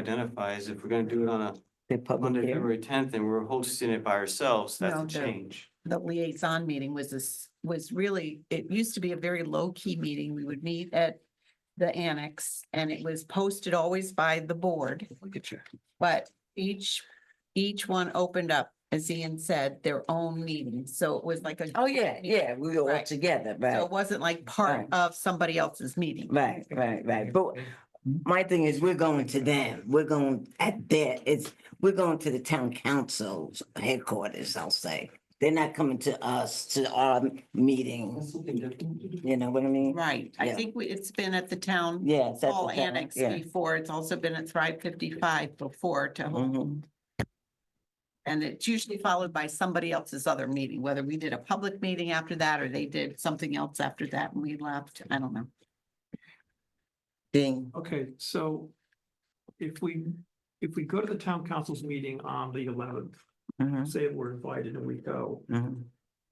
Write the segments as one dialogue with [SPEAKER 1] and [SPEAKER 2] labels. [SPEAKER 1] identify is if we're gonna do it on a
[SPEAKER 2] The public
[SPEAKER 1] Monday,
[SPEAKER 2] hearing.
[SPEAKER 1] February tenth, and we're hosting it by ourselves, that's
[SPEAKER 3] No,
[SPEAKER 1] a
[SPEAKER 3] the-
[SPEAKER 1] change.
[SPEAKER 3] the liaison meeting was this, was really, it used to be a very low-key meeting. We would meet at the annex and it was posted always by the board,
[SPEAKER 2] Look at you.
[SPEAKER 3] but each, each one opened up, as Ian said, their own meeting. So it was like a.
[SPEAKER 2] Oh, yeah, yeah, we all
[SPEAKER 3] Right.
[SPEAKER 2] together,
[SPEAKER 3] So
[SPEAKER 2] right,
[SPEAKER 3] it wasn't like part
[SPEAKER 2] Right.
[SPEAKER 3] of somebody else's meeting.
[SPEAKER 2] right, right, right. But my thing is, we're going to them. We're going at their, it's, we're going to the town council's headquarters, I'll say. They're not coming to us, to our
[SPEAKER 1] That's
[SPEAKER 2] meetings,
[SPEAKER 1] something different.
[SPEAKER 2] you know what I mean?
[SPEAKER 3] Right. I
[SPEAKER 2] Yeah.
[SPEAKER 3] think we- it's been at the town
[SPEAKER 2] Yes. that's
[SPEAKER 3] hall
[SPEAKER 2] the town,
[SPEAKER 3] annex
[SPEAKER 2] yeah.
[SPEAKER 3] before. It's also been at Thrive fifty-five before to hold
[SPEAKER 2] Mhm.
[SPEAKER 3] And it's usually followed by somebody else's other meeting, whether we did a public meeting after that or they did something else after that and we left. I don't know.
[SPEAKER 2] Ding.
[SPEAKER 4] Okay, so if we, if we go to the town council's meeting on the eleventh,
[SPEAKER 5] Mm-hmm.
[SPEAKER 2] Mhm,
[SPEAKER 4] say we're invited and we go,
[SPEAKER 2] mhm.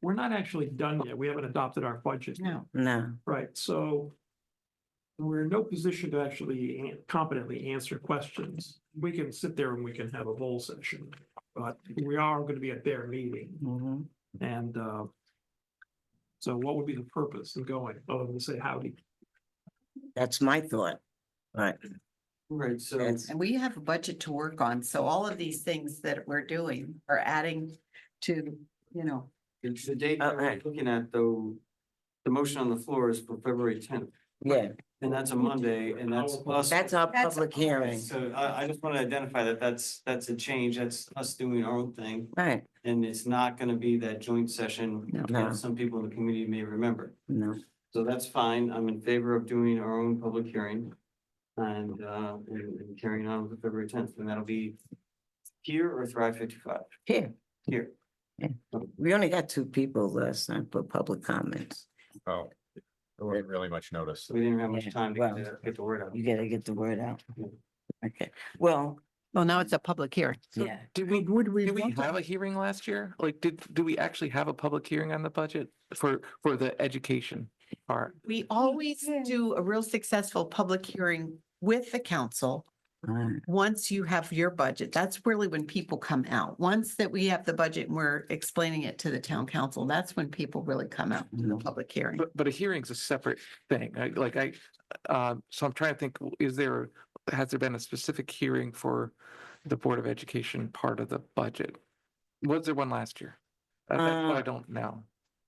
[SPEAKER 4] we're not actually done yet. We haven't adopted our budget.
[SPEAKER 3] No.
[SPEAKER 2] No,
[SPEAKER 4] Right, so we're in no position to actually an- competently answer questions. We can sit there and we can have a bowl session, but we are going to be at their meeting
[SPEAKER 2] mhm.
[SPEAKER 4] and uh, so what would be the purpose of going, other than to say howdy?
[SPEAKER 2] that's my thought. Right,
[SPEAKER 1] Right, so,
[SPEAKER 2] that's,
[SPEAKER 3] And we have a budget to work on. So all of these things that we're doing are adding to, you know,
[SPEAKER 1] it's the date that we're
[SPEAKER 2] Okay.
[SPEAKER 1] looking at, though, the motion on the floor is for February tenth,
[SPEAKER 2] yeah,
[SPEAKER 1] and that's a Monday, and that's us.
[SPEAKER 2] that's our
[SPEAKER 3] That's-
[SPEAKER 2] public hearing,
[SPEAKER 1] So I, I just want to identify that that's, that's a change, that's us doing our own thing,
[SPEAKER 2] right,
[SPEAKER 1] and it's not gonna be that joint session
[SPEAKER 3] No.
[SPEAKER 2] No.
[SPEAKER 1] that some people in the community may remember.
[SPEAKER 2] no,
[SPEAKER 1] So that's fine. I'm in favor of doing our own public hearing. And, uh, and and carrying on with February tenth, and that'll be here or Thrive fifty-five,
[SPEAKER 2] here,
[SPEAKER 1] here.
[SPEAKER 2] we only got two people last time for public comments.
[SPEAKER 6] Oh, there wasn't really much notice.
[SPEAKER 1] So we didn't have
[SPEAKER 2] Yeah,
[SPEAKER 1] much time to
[SPEAKER 2] well.
[SPEAKER 1] get the- get the word out.
[SPEAKER 2] You gotta get the word out.
[SPEAKER 1] Yeah.
[SPEAKER 2] Okay, well,
[SPEAKER 3] well, now it's a public hearing.
[SPEAKER 2] yeah,
[SPEAKER 5] Did we, would we? Did we
[SPEAKER 2] want to-
[SPEAKER 5] have a hearing last year? Like, did, do we actually have a public hearing on the budget for, for the education part?
[SPEAKER 3] We always do a real successful public hearing with the council.
[SPEAKER 2] all right,
[SPEAKER 3] once you have your budget, that's really when people come out. Once that we have the budget and we're explaining it to the town council, that's when people really come out in the public hearing.
[SPEAKER 5] But, but a hearing's a separate thing. I- Like I, uh, so I'm trying to think, is there, has there been a specific hearing for the Board of Education part of the budget? Was there one last year? I- That's what
[SPEAKER 2] Uh,
[SPEAKER 5] I don't know.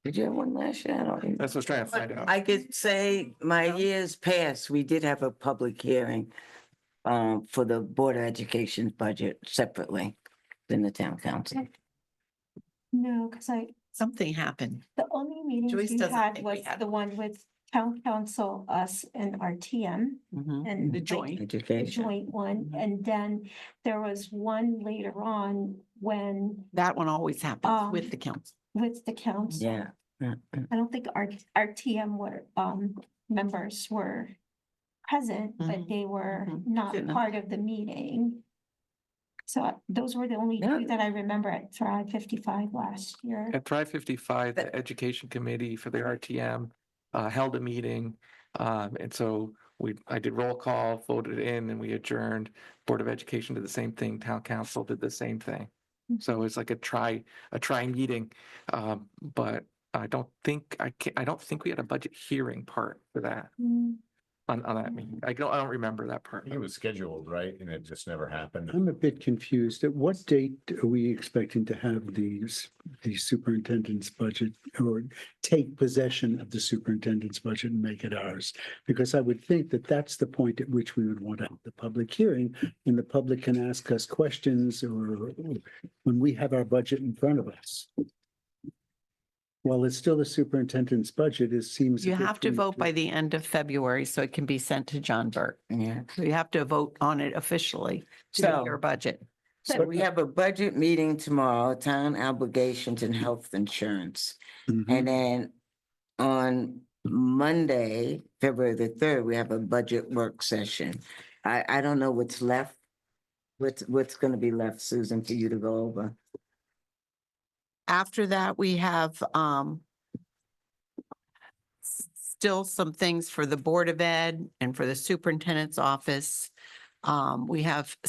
[SPEAKER 2] did you have one last year? I don't even-
[SPEAKER 5] That's what I was trying to find out.
[SPEAKER 2] I could say my years past, we did have a public hearing um, for the Board of Education budget separately than the town council.
[SPEAKER 7] No, because I,
[SPEAKER 3] Something happened.
[SPEAKER 7] the only
[SPEAKER 3] Joyce
[SPEAKER 7] meetings we
[SPEAKER 3] doesn't
[SPEAKER 7] had
[SPEAKER 3] think we
[SPEAKER 7] was
[SPEAKER 3] had
[SPEAKER 7] the one with town council, us and RTM and.
[SPEAKER 3] Mm-hmm. The
[SPEAKER 7] like,
[SPEAKER 3] joint.
[SPEAKER 7] the
[SPEAKER 2] Education.
[SPEAKER 7] Joint
[SPEAKER 3] Mm-hmm.
[SPEAKER 7] one, and then there was one later on when
[SPEAKER 3] That one always happens with the council.
[SPEAKER 7] with the council.
[SPEAKER 2] Yeah. uh,
[SPEAKER 7] I don't think our, RTM were, um, members were present,
[SPEAKER 3] Mhm,
[SPEAKER 7] but they were
[SPEAKER 3] mhm.
[SPEAKER 7] not
[SPEAKER 3] Didn't know.
[SPEAKER 7] part of the meeting. So I- those were the only
[SPEAKER 2] Yeah.
[SPEAKER 7] two that I remember at Thrive fifty-five last year.
[SPEAKER 5] At Thrive fifty-five,
[SPEAKER 2] But-
[SPEAKER 5] the education committee for the RTM uh, held a meeting. Um, and so we, I did roll call, voted in, and we adjourned. Board of Education did the same thing, town council did the same thing. So it's like a try, a try meeting. Um, but I don't think, I can I don't think we had a budget hearing part for that,
[SPEAKER 7] Hmm.
[SPEAKER 5] on, on that meeting. I don't, I don't remember that part.
[SPEAKER 6] It was scheduled, right? And it just never happened.
[SPEAKER 8] I'm a bit confused. At what date are we expecting to have the, s- the superintendent's budget or take possession of the superintendent's budget and make it ours? Because I would think that that's the point at which we would want to have the public hearing and the public can ask us questions or when we have our budget in front of us. While it's still the superintendent's budget, it seems. a
[SPEAKER 3] You
[SPEAKER 8] bit
[SPEAKER 3] have to vote by
[SPEAKER 8] premature.
[SPEAKER 3] the end of February so it can be sent to John Burke.
[SPEAKER 2] Yeah.
[SPEAKER 3] So you have to vote on it officially to do
[SPEAKER 2] So-
[SPEAKER 3] your budget.
[SPEAKER 2] So we have a budget meeting tomorrow, town obligations and health insurance.
[SPEAKER 8] Mhm.
[SPEAKER 2] And then on Monday, February the third, we have a budget work session. I, I don't know what's left. What's, what's gonna be left, Susan, for you to go over?
[SPEAKER 3] After that, we have um s- still some things for the Board of Ed and for the Superintendent's Office. Um, we have